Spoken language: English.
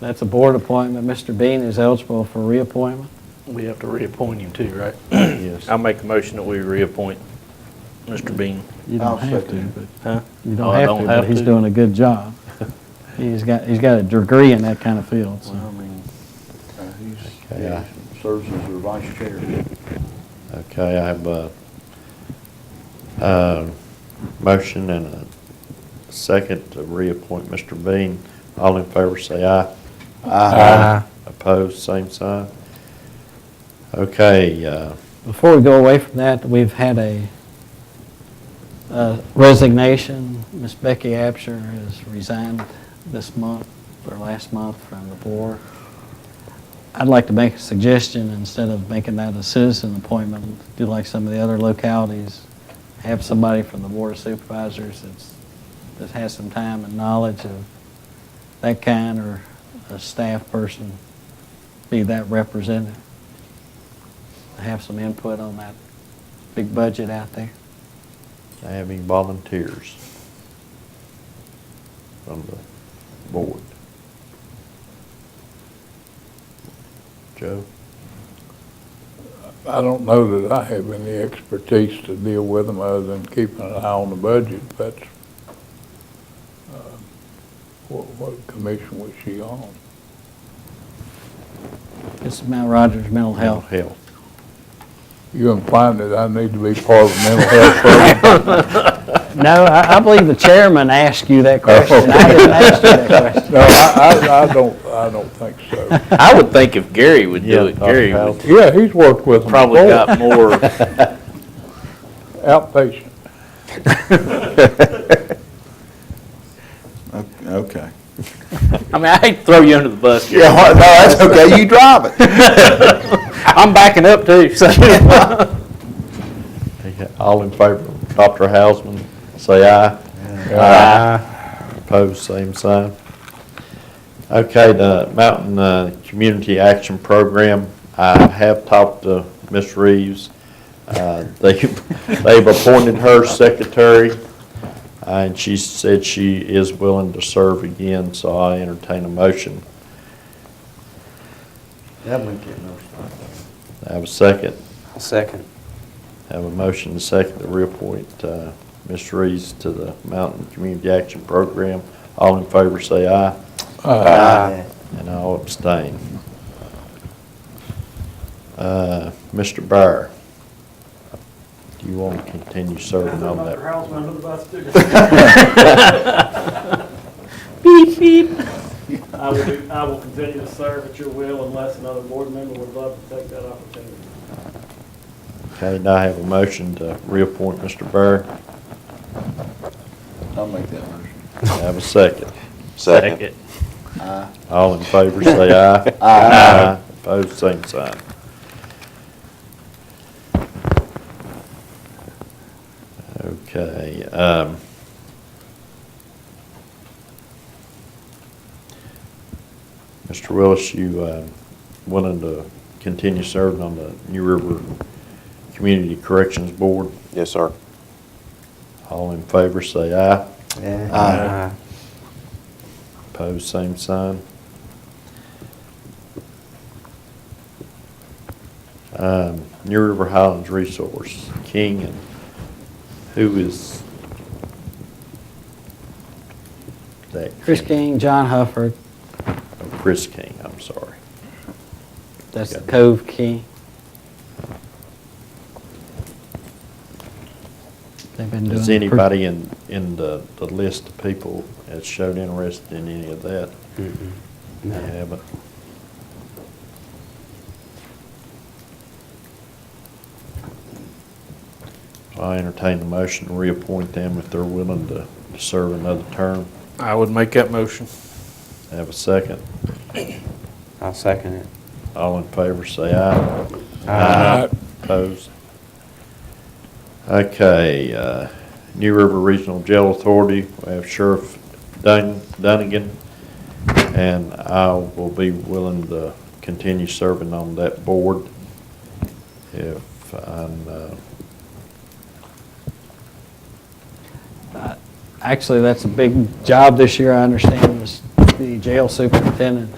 That's a board appointment. Mr. Bean is eligible for reappointment. We have to reappoint him too, right? Yes. I'll make a motion that we reappoint Mr. Bean. You don't I'll have to, second but, Huh? you Oh, don't I have to, but he's doing a good job. He's got, he's got a degree in that kind of field, Well, I so. mean, uh, he's, Okay, yeah, I- serves as their vice chair. Okay, I have a, a motion and a second to reappoint Mr. Bean. All in favor, say aye. Aye. Opposed, same sign. Okay, uh, Before we go away from that, we've had a uh, resignation. Miss Becky Absher has resigned this month, or last month, from the board. I'd like to make a suggestion, instead of making that a citizen appointment, do like some of the other localities, have somebody from the board of supervisors that's, that has some time and knowledge of that kind, or a staff person be that representative have some input on that big budget out there. I have any volunteers from the board? Joe? I don't know that I have any expertise to deal with them other than keeping an eye on the budget. That's, uh, what, what commission was she on? It's Mount Rogers Mental Health. Health. You implying that I need to be part of the mental health program? No, I, I believe the chairman asked you that question. I didn't ask you that question. No, I, I, I don't, I don't think so. I would think if Gary would Yeah, do it, Gary Dr. would Yeah, he's worked with them probably before, got more. outpatient. O- Okay. I mean, I hate to throw you under the bus, Gary. Yeah, no, that's okay, you drive it. I'm backing up too, so. Okay, All in favor of Dr. Hausman, say aye. Opposed, same sign. Okay, the Mountain uh, Community Action Program, I have talked to Ms. Reeves. Uh, They've they've appointed her secretary, uh, and she said she is willing to serve again, so I entertain a motion. I have a second. Second. Have a motion and a second to reappoint uh, Ms. Reeves to the Mountain Community Action Program. All in favor, say aye. Aye. And all abstain. Uh, Mr. Byer, do you want to continue serving on that? I will, be- I will continue to serve at your will unless another board member would love to take that opportunity. Okay, now I have a motion to reappoint Mr. Byer. I'll make that motion. Have a second. Second. All in favor, say aye. Aye. Opposed, same sign. Okay, um. Mr. Willis, you, uh, willing to continue serving on the New River Community Corrections Board? Yes, sir. All in favor, say aye. Aye. Pose same sign. Um, New River Highlands Resource, King, and who is that? Chris King, John Hufford, Oh, Chris King, I'm sorry. that's the Cove King. They've been doing. Is a pr- anybody in, in the, the list of people that showed interest in any of that? They haven't. So I entertain the motion to reappoint them if they're willing to to serve another term. I would make that motion. Have a second. I'll second it. All in favor, say aye. Aye. Opposed? Okay, uh, New River Regional Jail Authority, we have Sheriff Dun- Dunnigan, and I will be willing to continue serving on that board if I'm, uh, Actually, that's a big job this year, I understand, is the jail superintendent